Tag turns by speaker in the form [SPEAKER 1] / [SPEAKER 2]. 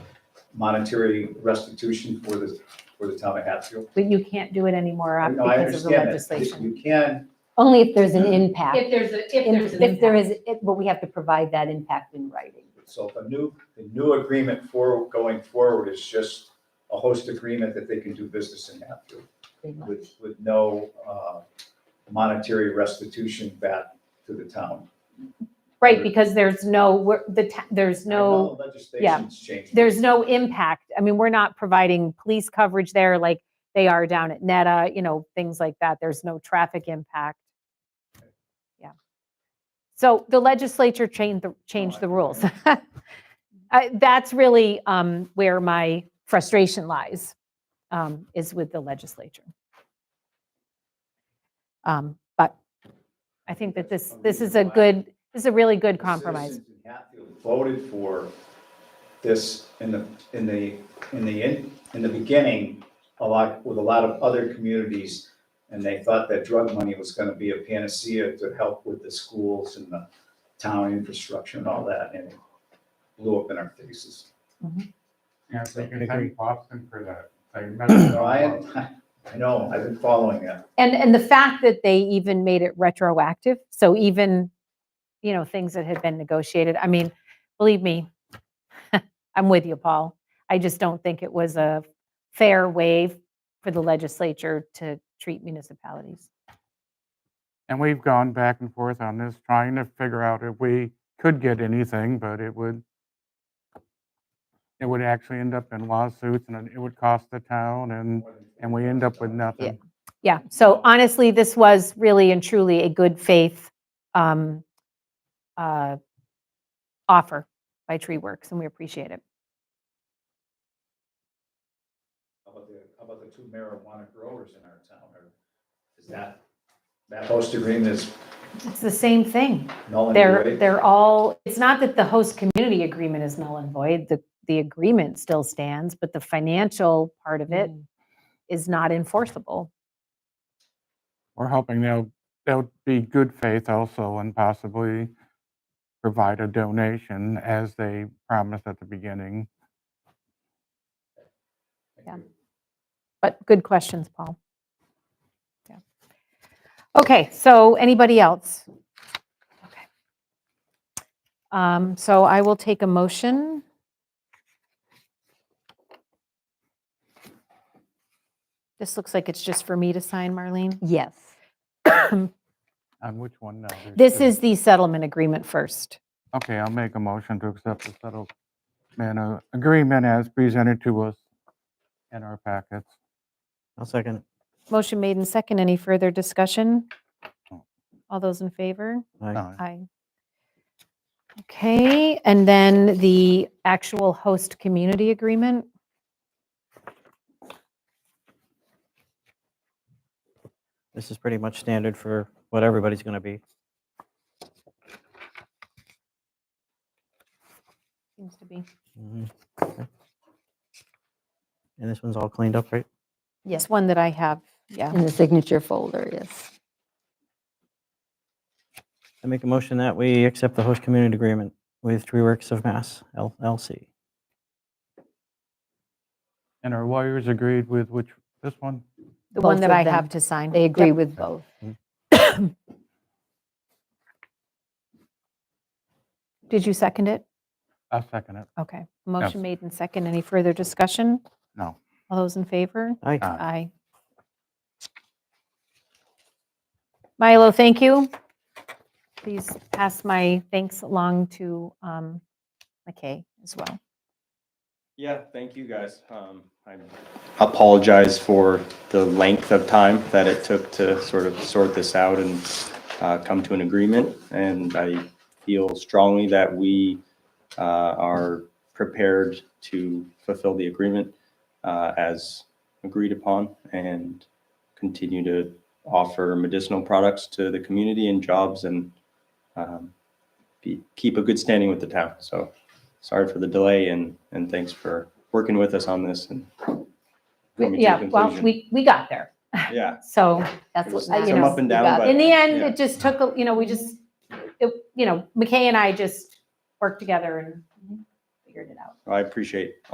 [SPEAKER 1] monetary restitution for the, for the town of Hatfield.
[SPEAKER 2] But you can't do it anymore uh,
[SPEAKER 1] No, I
[SPEAKER 2] because of the
[SPEAKER 1] understand that.
[SPEAKER 2] legislation.
[SPEAKER 1] You can,
[SPEAKER 3] Only if there's an impact.
[SPEAKER 4] If there's a, if there's an
[SPEAKER 3] If there
[SPEAKER 4] impact.
[SPEAKER 3] is, it- but we have to provide that impact in writing.
[SPEAKER 1] so if a new, the new agreement for, going forward is just a host agreement that they can do business in Hatfield
[SPEAKER 3] pretty much.
[SPEAKER 1] with, with no uh, monetary restitution back to the town.
[SPEAKER 2] Right, because there's no, we're- the, ta- there's no.
[SPEAKER 1] I know Legislation's changed.
[SPEAKER 2] there's no impact. I mean, we're not providing police coverage there like they are down at Neta, you know, things like that. There's no traffic impact. Yeah. So the legislature changed, the- changed the rules. I- That's really um, where my frustration lies, um, is with the legislature. Um, But I think that this, this is a good, this is a really good
[SPEAKER 1] The
[SPEAKER 2] compromise.
[SPEAKER 1] citizens in Hatfield Voted for this in the, in the, in the, in in the beginning, a lot, with a lot of other communities. And they thought that drug money was gonna be a panacea to help with the schools and the town infrastructure and all that, and it blew up in our faces.
[SPEAKER 5] Yeah, so you can thank Boston for that. I remember
[SPEAKER 1] So I, I know, I've been following that.
[SPEAKER 2] And, and the fact that they even made it retroactive, so even, you know, things that had been negotiated, I mean, believe me, I'm with you, Paul. I just don't think it was a fair way for the legislature to treat municipalities.
[SPEAKER 5] And we've gone back and forth on this, trying to figure out if we could get anything, but it would, it would actually end up in lawsuits and it would cost the town and, and we end up with nothing.
[SPEAKER 2] Yeah, so honestly, this was really and truly a good faith um, uh, offer by Tree Works, and we appreciate it.
[SPEAKER 1] How about the, how about the two marijuana growers in our town, or is that, that host agreement is
[SPEAKER 2] It's the same thing.
[SPEAKER 1] null and
[SPEAKER 2] They're,
[SPEAKER 1] void?
[SPEAKER 2] they're all, it's not that the host community agreement is null and void, the, the agreement still stands, but the financial part of it is not enforceable.
[SPEAKER 5] We're hoping they'll, they'll be good faith also and possibly provide a donation as they promised at the beginning.
[SPEAKER 2] yeah. But good questions, Paul. Yeah. Okay, so anybody else? Okay. Um, So I will take a motion. This looks like it's just for me to sign, Marlene.
[SPEAKER 3] Yes.
[SPEAKER 5] On which one now? There's
[SPEAKER 2] This
[SPEAKER 5] two.
[SPEAKER 2] is the settlement agreement first.
[SPEAKER 5] Okay, I'll make a motion to accept the settlement uh, agreement as presented to us in our packets.
[SPEAKER 6] I'll second.
[SPEAKER 2] Motion made and second. Any further discussion?
[SPEAKER 5] No.
[SPEAKER 2] All those in favor?
[SPEAKER 6] Aye.
[SPEAKER 5] Uh,
[SPEAKER 2] Aye. Okay, and then the actual host community agreement.
[SPEAKER 6] This is pretty much standard for what everybody's going to be.
[SPEAKER 2] Seems to be.
[SPEAKER 6] Mhm. Okay. And this one's all cleaned up, right?
[SPEAKER 2] Yes, one that I have, yeah.
[SPEAKER 3] In the signature folder, yes.
[SPEAKER 6] I make a motion that we accept the host community agreement with Tree Works of Mass LLC.
[SPEAKER 5] And our lawyers agreed with which, this one?
[SPEAKER 2] The one
[SPEAKER 3] Both
[SPEAKER 2] that
[SPEAKER 3] of
[SPEAKER 2] I have
[SPEAKER 3] them.
[SPEAKER 2] to sign.
[SPEAKER 3] They agree
[SPEAKER 2] Yep.
[SPEAKER 3] with both.
[SPEAKER 2] Did you second it?
[SPEAKER 5] I'll second it.
[SPEAKER 2] Okay. Motion made and second. Any further discussion?
[SPEAKER 5] No.
[SPEAKER 2] All those in favor?
[SPEAKER 6] Aye.
[SPEAKER 5] Aye.
[SPEAKER 2] Aye. Milo, thank you. Please pass my thanks along to um, McKay as well.
[SPEAKER 7] Yeah, thank you guys. Um, I apologize for the length of time that it took to sort of sort this out and uh, come to an agreement. And I feel strongly that we uh, are prepared to fulfill the agreement uh, as agreed upon and continue to offer medicinal products to the community and jobs and um, be, keep a good standing with the town. So sorry for the delay and, and thanks for working with us on this and. coming to a
[SPEAKER 2] Yeah, well,
[SPEAKER 7] conclusion.
[SPEAKER 2] we, we got there.
[SPEAKER 7] Yeah,
[SPEAKER 2] So uh,
[SPEAKER 3] That's what,
[SPEAKER 7] It was
[SPEAKER 3] I- you
[SPEAKER 2] some
[SPEAKER 3] know.
[SPEAKER 2] up
[SPEAKER 7] and
[SPEAKER 3] you
[SPEAKER 7] down,
[SPEAKER 3] got
[SPEAKER 7] but-
[SPEAKER 3] it.
[SPEAKER 2] in the end,
[SPEAKER 7] Yeah.
[SPEAKER 2] it just took, a- you know, we just, it you know, McKay and I just worked together and figured it out.
[SPEAKER 7] I appreciate